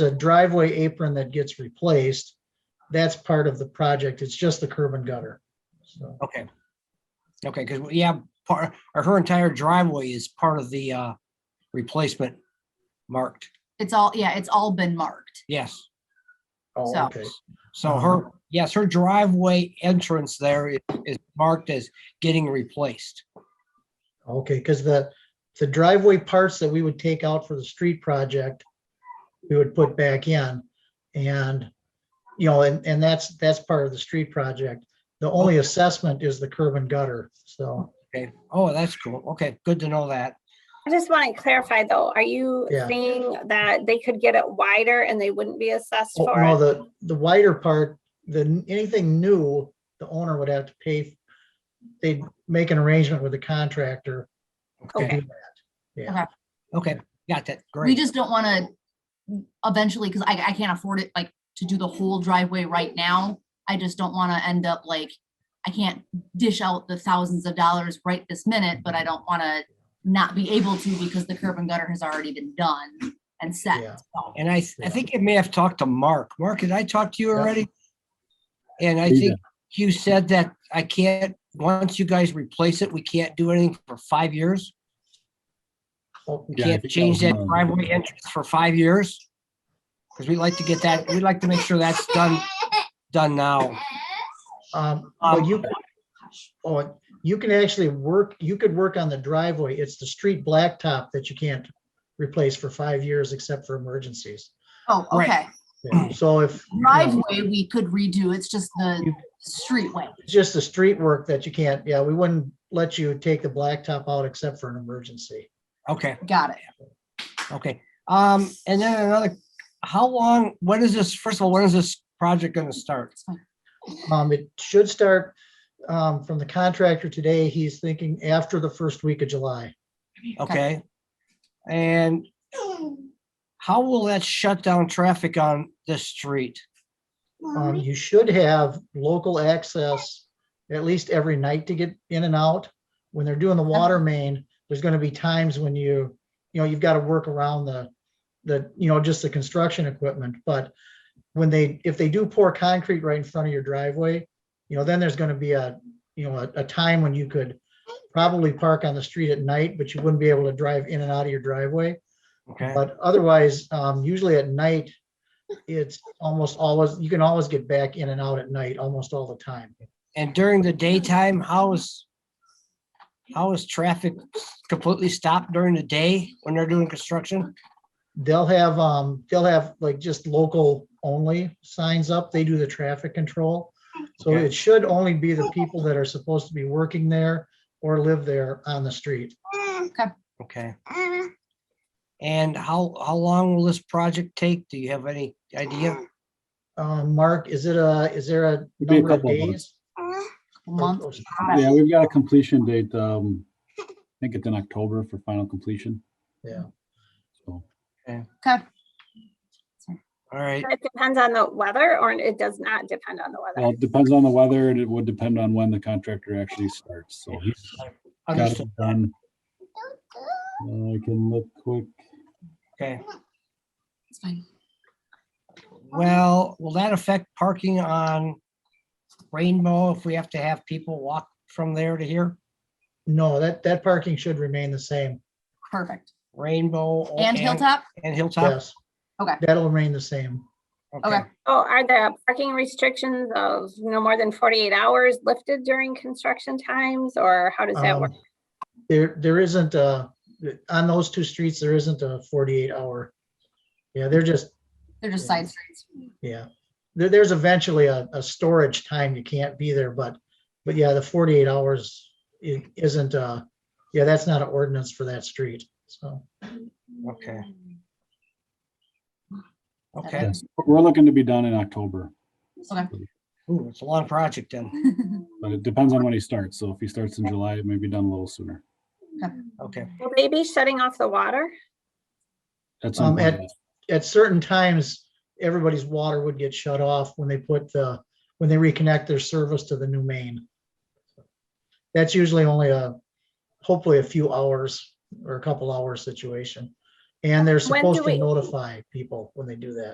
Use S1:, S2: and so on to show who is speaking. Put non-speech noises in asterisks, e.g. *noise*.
S1: a driveway apron that gets replaced. That's part of the project. It's just the curb and gutter. So,
S2: Okay. Okay, because, yeah, part, or her entire driveway is part of the uh replacement marked,
S3: It's all, yeah, it's all been marked.
S2: yes.
S1: oh,
S3: So-
S1: okay.
S2: So her, yes, her driveway entrance there is is marked as getting replaced.
S1: Okay, because the, the driveway parts that we would take out for the street project, we would put back in. And, you know, and, and that's, that's part of the street project. The only assessment is the curb and gutter, so,
S2: Okay, oh, that's cool. Okay, good to know that.
S4: I just want to clarify though, are you
S1: Yeah.
S4: saying that they could get it wider and they wouldn't be assessed
S1: oh,
S4: for
S1: no,
S4: it?
S1: the, the wider part, the, anything new, the owner would have to pay. They'd make an arrangement with the contractor. to
S2: Okay,
S1: do that. Yeah,
S2: okay, got that,
S3: We
S2: great.
S3: just don't want to eventually, because I, I can't afford it, like, to do the whole driveway right now. I just don't want to end up like, I can't dish out the thousands of dollars right this minute, but I don't want to not be able to because the curb and gutter has already been done and
S1: Yeah.
S3: set. So,
S2: And I, I think I may have talked to Mark. Mark, did I talk to you
S1: Yeah.
S2: already? And I
S5: Yeah.
S2: think you said that I can't, once you guys replace it, we can't do anything for five years?
S1: Oh,
S2: We
S5: Yeah, I
S2: can't
S5: think that
S2: change
S5: was
S2: that
S5: mine.
S2: driveway entrance for five years? Because we like to get that, we'd like to make sure that's done, done now.
S1: Um,
S2: Um,
S1: well, you, oh, you can actually work, you could work on the driveway. It's the street blacktop that you can't replace for five years except for emergencies.
S3: Oh,
S2: Right.
S3: okay.
S1: Yeah, So if, you know,
S3: Driveway, we could redo. It's just the streetway.
S1: it's just the street work that you can't, yeah, we wouldn't let you take the blacktop out except for an emergency.
S2: Okay,
S3: Got it.
S2: okay. Um, and then another, how long, when is this, first of all, when is this project gonna start?
S3: It's fine.
S1: Um, it should start, um, from the contractor today. He's thinking after the first week of July.
S2: Okay? And how will that shut down traffic on this street?
S1: Um, you should have local access at least every night to get in and out. When they're doing the water main, there's gonna be times when you, you know, you've got to work around the, the, you know, just the construction equipment, but when they, if they do pour concrete right in front of your driveway, you know, then there's gonna be a, you know, a, a time when you could probably park on the street at night, but you wouldn't be able to drive in and out of your driveway.
S2: Okay,
S1: But otherwise, um, usually at night, it's almost always, you can always get back in and out at night, almost all the time.
S2: and during the daytime, how is, how is traffic completely stopped during the day when they're doing construction?
S1: They'll have, um, they'll have like just local only signs up. They do the traffic control. So
S2: Okay.
S1: it should only be the people that are supposed to be working there or live there on the street.
S2: Okay. And how, how long will this project take? Do you have any idea?
S1: Um, Mark, is it a, is there a
S5: It'd be a
S1: number of
S5: couple of months.
S1: days?
S3: A month.
S1: Or-
S5: Yeah, we've got a completion date, um, I think it's in October for final completion.
S1: Yeah.
S5: So,
S3: Okay.
S2: All right,
S4: It depends on the weather or it does not depend on the
S5: well,
S4: weather.
S5: it depends on the weather and it would depend on when the contractor actually starts, so he's got
S2: understood,
S5: it done. Uh, I can look quick,
S2: okay.
S3: It's fine.
S2: Well, will that affect parking on Rainbow if we have to have people walk from there to here?
S1: No, that, that parking should remain the same.
S3: Perfect.
S2: Rainbow? o-
S3: And Hilltop?
S2: And Hilltop?
S1: Yes.
S3: Okay.
S1: That'll remain the same.
S2: Okay,
S4: Oh, are the parking restrictions of no more than forty-eight hours lifted during construction times or how does that work?
S1: Um, There, there isn't a, on those two streets, there isn't a forty-eight hour. Yeah, they're just,
S3: They're just side streets.
S1: yeah, there, there's eventually a, a storage time. You can't be there, but, but yeah, the forty-eight hours is isn't, uh, yeah, that's not an ordinance for that street, so.
S2: *laughs* okay.
S3: That
S2: Okay,
S3: works.
S5: we're looking to be done in October,
S2: ooh, it's a long project then.
S5: but it depends on when he starts, so if he starts in July, it may be done a little sooner.
S2: Okay,
S4: Will they be shutting off the water?
S5: That's
S1: Um,
S5: something,
S1: at- At certain times, everybody's water would get shut off when they put the, when they reconnect their service to the new main. That's usually only a, hopefully a few hours or a couple hours situation. And they're
S4: When do
S1: supposed to
S4: we-
S1: notify people when they do that.